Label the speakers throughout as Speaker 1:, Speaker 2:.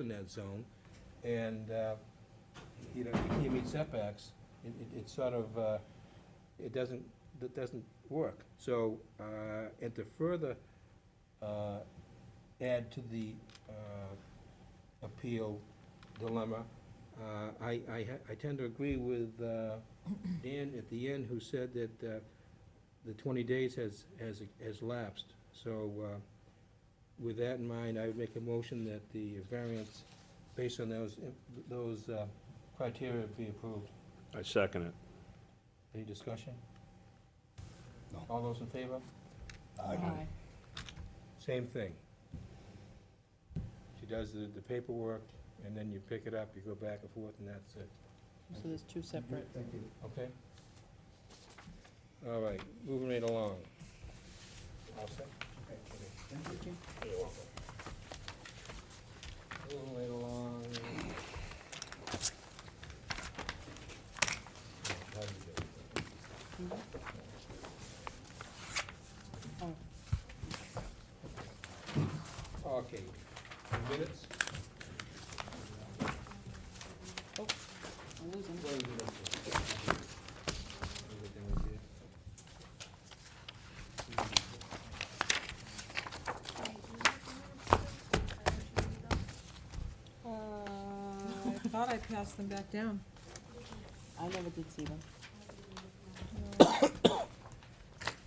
Speaker 1: in that zone, and, uh, you know, you can't meet setbacks, it, it- it sort of, uh, it doesn't, that doesn't work. So, uh, and to further uh, add to the uh, appeal dilemma, uh, I, I ha- I tend to agree with uh, Dan at the end, who said that uh, the 20 days has, has has lapsed. So uh, with that in mind, I would make a motion that the variance, based on those, those uh, criteria, be approved.
Speaker 2: I second it.
Speaker 1: Any discussion?
Speaker 3: No.
Speaker 1: All those in favor?
Speaker 3: Aye.
Speaker 1: Same thing. She does the the paperwork, and then you pick it up, you go back and forth, and that's it.
Speaker 4: So there's two separate.
Speaker 3: Thank you.
Speaker 1: Okay? All right, moving right along. All set?
Speaker 4: Thank you.
Speaker 1: You're welcome. Moving right along.
Speaker 4: Mhm. Oh,
Speaker 1: Okay, minutes?
Speaker 4: I'm losing.
Speaker 5: Uh, I thought I passed them back down.
Speaker 4: I never did see them.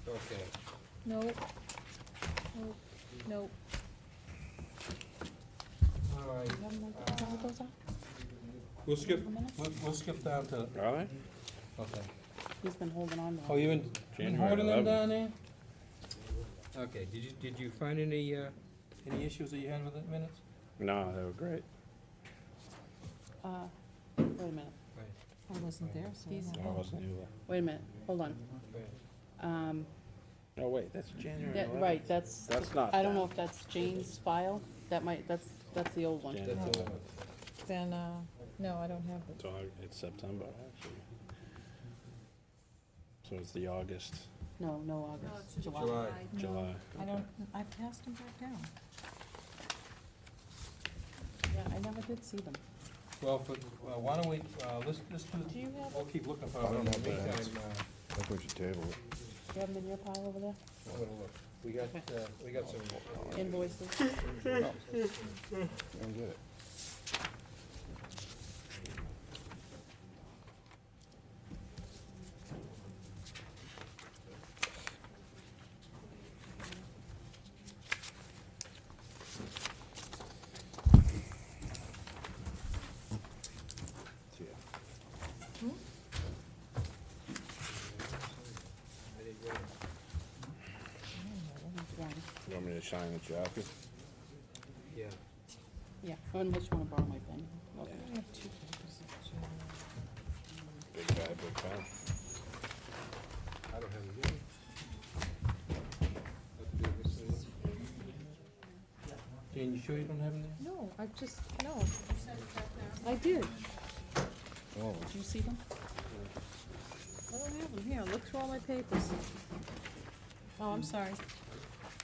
Speaker 1: Okay.
Speaker 5: Nope. Nope. Nope.
Speaker 1: All right,
Speaker 4: You have them like- is that what those are?
Speaker 1: we'll skip,
Speaker 4: The minutes?
Speaker 1: we'll, we'll skip down to,
Speaker 2: All right,
Speaker 1: okay.
Speaker 4: He's been holding on to
Speaker 1: Oh,
Speaker 4: them.
Speaker 1: you been- been
Speaker 2: January
Speaker 1: holding them
Speaker 2: 11th.
Speaker 1: down there? Okay, did you, did you find any, uh, any issues that you had with the minutes?
Speaker 2: no, they were great.
Speaker 4: Uh, Wait a minute,
Speaker 5: I wasn't there, so. I
Speaker 4: These-
Speaker 5: don't
Speaker 2: No, I
Speaker 5: know.
Speaker 2: wasn't either.
Speaker 4: wait a minute, hold on. Um,
Speaker 2: No, wait, that's January
Speaker 4: that-
Speaker 2: 11th.
Speaker 4: Right, that's,
Speaker 2: That's not
Speaker 4: I don't
Speaker 2: that.
Speaker 4: know if that's Jane's file, that might, that's, that's the old one.
Speaker 2: Jan-
Speaker 1: That's all.
Speaker 5: Then, uh, no, I don't have it.
Speaker 2: It's Au- It's September, actually. So it's the August,
Speaker 4: No, no,
Speaker 6: No,
Speaker 4: August,
Speaker 6: it's
Speaker 4: July.
Speaker 1: July.
Speaker 5: No,
Speaker 2: July.
Speaker 5: I
Speaker 2: okay.
Speaker 5: don't, I passed them back down.
Speaker 4: Yeah, I never did see them.
Speaker 1: Well, for, uh, why don't we, uh, let's, let's do,
Speaker 4: Do you have,
Speaker 1: we'll keep looking for
Speaker 3: I
Speaker 1: them.
Speaker 3: don't
Speaker 1: In the
Speaker 3: know about
Speaker 1: meantime, uh,
Speaker 3: I think we should table it.
Speaker 4: you have them in your pile over there?
Speaker 1: we'll look. We got, uh, we got some.
Speaker 4: Invoices?
Speaker 3: I don't get it.
Speaker 2: You want me to sign the jacket?
Speaker 1: Yeah.
Speaker 4: Yeah, Oh, unless you wanna borrow my pen. Okay.
Speaker 5: I have two papers.
Speaker 2: Big guy, big guy.
Speaker 1: I don't have any. Let's do this one. Jane, you sure you don't have any?
Speaker 5: No, I just, no. I did.
Speaker 3: Oh,
Speaker 4: Did you see them?
Speaker 5: I don't have them. Here, look through all my papers. Oh, I'm sorry.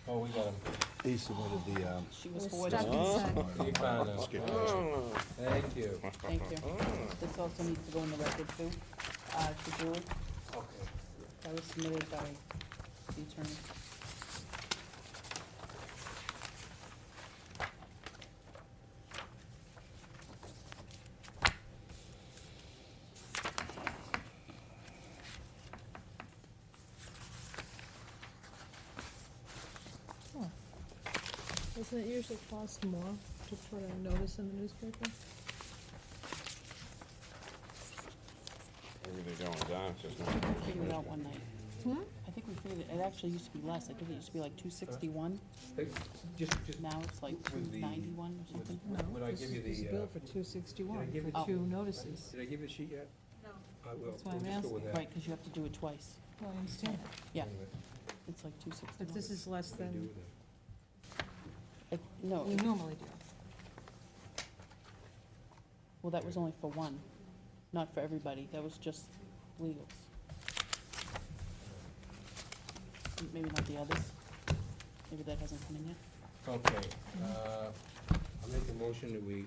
Speaker 1: Oh, we got them.
Speaker 3: he submitted the, um,
Speaker 4: She
Speaker 5: It
Speaker 4: was
Speaker 5: was
Speaker 4: hoarding.
Speaker 5: stuck inside.
Speaker 1: You found them. All right. Thank you.
Speaker 4: Thank you.
Speaker 1: Mm.
Speaker 4: This also needs to go in the record too, uh, to Julie.
Speaker 1: Okay.
Speaker 4: That was submitted by the attorney.
Speaker 5: Doesn't it usually cost more to put a notice in the newspaper?
Speaker 2: Everything going down, it's just not.
Speaker 4: I think we figured it out one night.
Speaker 5: Hmm?
Speaker 4: I think we figured, it it actually used to be less, I think it used to be like two sixty-one,
Speaker 1: Hey, Just, just,
Speaker 4: now it's like two
Speaker 1: With the-
Speaker 4: ninety-one or something.
Speaker 1: Would- would I
Speaker 5: No, this
Speaker 1: give you
Speaker 5: is this
Speaker 1: the, uh,
Speaker 5: bill for two
Speaker 1: did I give
Speaker 5: sixty-one,
Speaker 1: it
Speaker 4: to
Speaker 5: for two
Speaker 4: you?
Speaker 5: notices.
Speaker 1: did I give you the sheet yet?
Speaker 6: No.
Speaker 1: I will.
Speaker 5: That's why I'm
Speaker 1: We'll just go with that.
Speaker 4: Right, because you have to do it twice,
Speaker 1: Oh.
Speaker 5: No, I understand,
Speaker 4: yeah,
Speaker 1: Anyway,
Speaker 4: it's like two sixty-one.
Speaker 5: but this is less
Speaker 1: what do you do
Speaker 5: than
Speaker 1: with it?
Speaker 4: No,
Speaker 5: we
Speaker 4: it-
Speaker 5: normally do.
Speaker 4: well, that was only for one, not for everybody, that was just legals. M- Maybe not the others, maybe that hasn't come in yet.
Speaker 5: Mm-hmm.
Speaker 1: Okay, uh, I'll make a motion that we